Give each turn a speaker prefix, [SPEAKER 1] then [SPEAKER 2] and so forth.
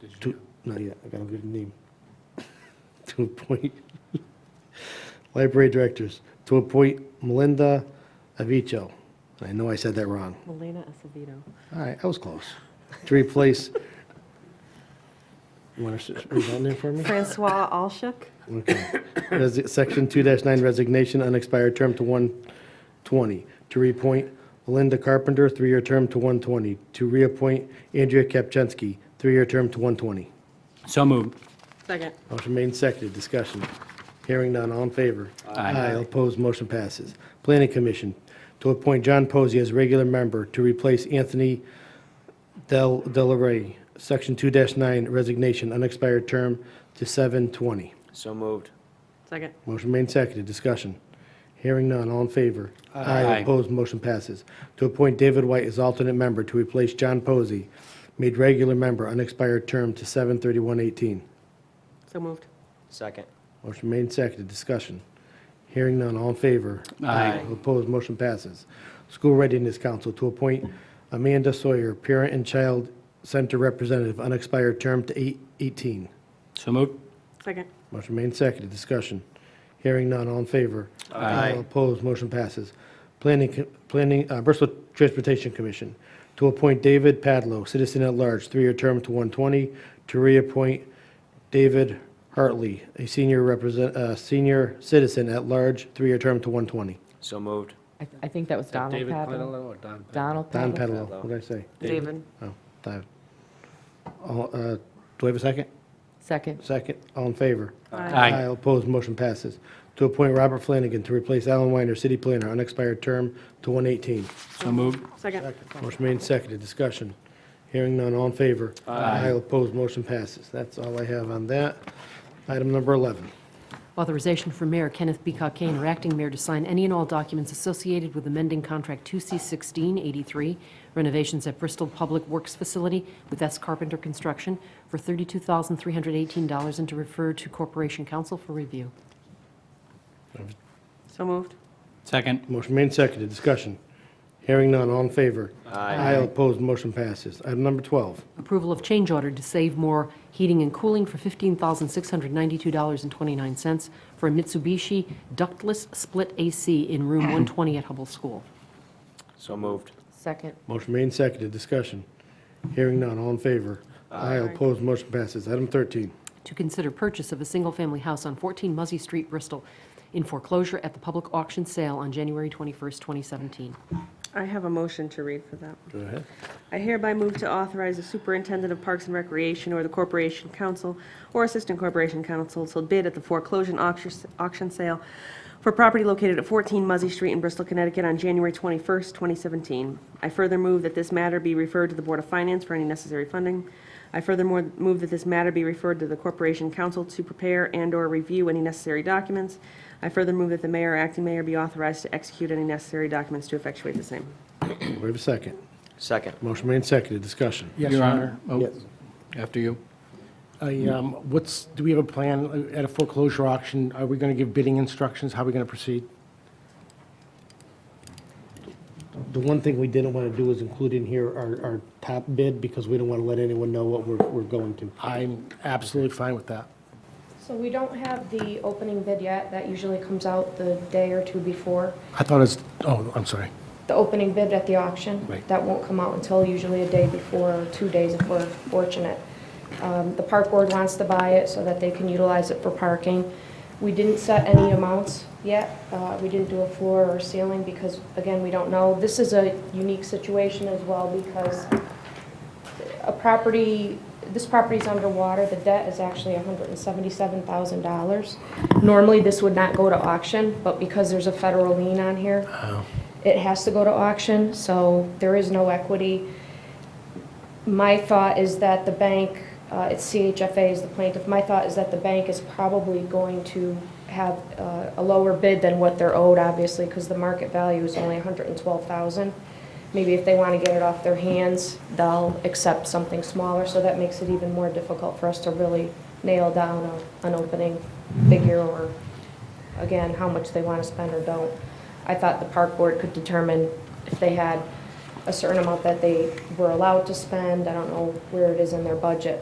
[SPEAKER 1] this year?
[SPEAKER 2] To, not yet, I gotta give a name. To appoint library directors, to appoint Melinda Avicho. I know I said that wrong.
[SPEAKER 3] Melena Acevedo.
[SPEAKER 2] All right, I was close. To replace, you want to read that name for me?
[SPEAKER 3] Francois Alshuk.
[SPEAKER 2] Okay. Resi- Section 2-9 resignation, unexpired term to 120. To reappoint Linda Carpenter, three-year term to 120. To reappoint Andrea Kapczynski, three-year term to 120.
[SPEAKER 4] So moved.
[SPEAKER 3] Second.
[SPEAKER 2] Motion made and seconded, discussion. Hearing none, all in favor?
[SPEAKER 4] Aye.
[SPEAKER 2] All opposed, motion passes. Planning Commission, to appoint John Posey as regular member to replace Anthony Del Delaray. Section 2-9 resignation, unexpired term to 720.
[SPEAKER 1] So moved.
[SPEAKER 3] Second.
[SPEAKER 2] Motion made and seconded, discussion. Hearing none, all in favor?
[SPEAKER 4] Aye.
[SPEAKER 2] Opposed, motion passes. To appoint David White as alternate member to replace John Posey, made regular member, unexpired term to 7/31/18.
[SPEAKER 3] So moved.
[SPEAKER 1] Second.
[SPEAKER 2] Motion made and seconded, discussion. Hearing none, all in favor?
[SPEAKER 4] Aye.
[SPEAKER 2] Opposed, motion passes. School Readiness Council to appoint Amanda Sawyer, Parent and Child Center Representative, unexpired term to 8/18.
[SPEAKER 4] So moved.
[SPEAKER 3] Second.
[SPEAKER 2] Motion made and seconded, discussion. Hearing none, all in favor?
[SPEAKER 4] Aye.
[SPEAKER 2] All opposed, motion passes. Planning, co- Planning, uh, Bristol Transportation Commission, to appoint David Padlow, citizen at large, three-year term to 120, to reappoint David Hartley, a senior represent, uh, senior citizen at large, three-year term to 120.
[SPEAKER 1] So moved.
[SPEAKER 5] I, I think that was Donald
[SPEAKER 4] David
[SPEAKER 5] Padlo.
[SPEAKER 4] Padlo or Don? Padlo?
[SPEAKER 5] Donald
[SPEAKER 2] Don
[SPEAKER 5] Padlo.
[SPEAKER 2] Padlow, what did I say?
[SPEAKER 3] David.
[SPEAKER 2] Oh, David. All, uh, Do I have a second?
[SPEAKER 5] Second,
[SPEAKER 2] Second, all in favor?
[SPEAKER 4] Aye.
[SPEAKER 2] All opposed, motion passes. To appoint Robert Flanagan to replace Alan Weiner, city planner, unexpired term to 118.
[SPEAKER 4] So moved.
[SPEAKER 3] Second.
[SPEAKER 2] Motion made and seconded, discussion. Hearing none, all in favor? Aye. opposed, motion passes. That's all I have on that. Item number 11.
[SPEAKER 6] Authorization for Mayor Kenneth B. Cockane or Acting Mayor to sign any and all documents associated with amending Contract 2C1683 renovations at Bristol Public Works Facility with S. Carpenter Construction for $32,318 and to refer to Corporation Council for review.
[SPEAKER 3] So moved.
[SPEAKER 4] Second.
[SPEAKER 2] Motion made and seconded, discussion. Hearing none, all in favor? Aye. opposed, motion passes. Item number 12.
[SPEAKER 6] Approval of change order to Save More Heating and Cooling for $15,692.29 for a Mitsubishi ductless split AC in room 120 at Hubble School.
[SPEAKER 1] So moved.
[SPEAKER 5] second,
[SPEAKER 2] Motion made and seconded, discussion. Hearing none, all in favor? Aye. opposed, motion passes. Item 13.
[SPEAKER 6] to consider purchase of a single-family house on 14 Muzzy Street, Bristol, in foreclosure at the public auction sale on January 21st, 2017.
[SPEAKER 3] I have a motion to read for that.
[SPEAKER 2] Go ahead.
[SPEAKER 3] I hereby move to authorize the superintendent of Parks and Recreation or the Corporation Council or Assistant Corporation Council to bid at the foreclosure auction auction sale for property located at 14 Muzzy Street in Bristol, Connecticut on January 21st, 2017. I further move that this matter be referred to the Board of Finance for any necessary funding. I furthermore move that this matter be referred to the Corporation Council to prepare and/or review any necessary documents. I further move that the mayor or acting mayor be authorized to execute any necessary documents to effectuate the same.
[SPEAKER 2] Do I have a second?
[SPEAKER 1] Second.
[SPEAKER 2] Motion made and seconded, discussion.
[SPEAKER 4] Your Honor. Oh,
[SPEAKER 7] Yes.
[SPEAKER 4] After you.
[SPEAKER 7] I, um, What's, do we have a plan at a foreclosure auction? Are we going to give bidding instructions? How are we going to proceed?
[SPEAKER 2] The one thing we didn't want to do is include in here our, our top bid, because we don't want to let anyone know what we're, we're going to.
[SPEAKER 7] I'm absolutely fine with that.
[SPEAKER 8] So we don't have the opening bid yet. That usually comes out the day or two before.
[SPEAKER 7] I thought it was, oh, I'm sorry.
[SPEAKER 8] The opening bid at the auction.
[SPEAKER 7] Right.
[SPEAKER 8] That won't come out until usually a day before or two days if we're fortunate. Um, The park board wants to buy it so that they can utilize it for parking. We didn't set any amounts yet. Uh, We didn't do a floor or ceiling because, again, we don't know. This is a unique situation as well because a property, this property's underwater, the debt is actually $177,000. Normally, this would not go to auction, but because there's a federal lien on here, it has to go to auction, so there is no equity. My thought is that the bank, uh, it's CHFA is the plaintiff, my thought is that the bank is probably going to have uh, a lower bid than what they're owed, obviously, because the market value is only 112,000. Maybe if they want to get it off their hands, they'll accept something smaller, so that makes it even more difficult for us to really nail down a- an opening figure or, again, how much they want to spend or don't. I thought the park board could determine if they had a certain amount that they were allowed to spend. I don't know where it is in their budget,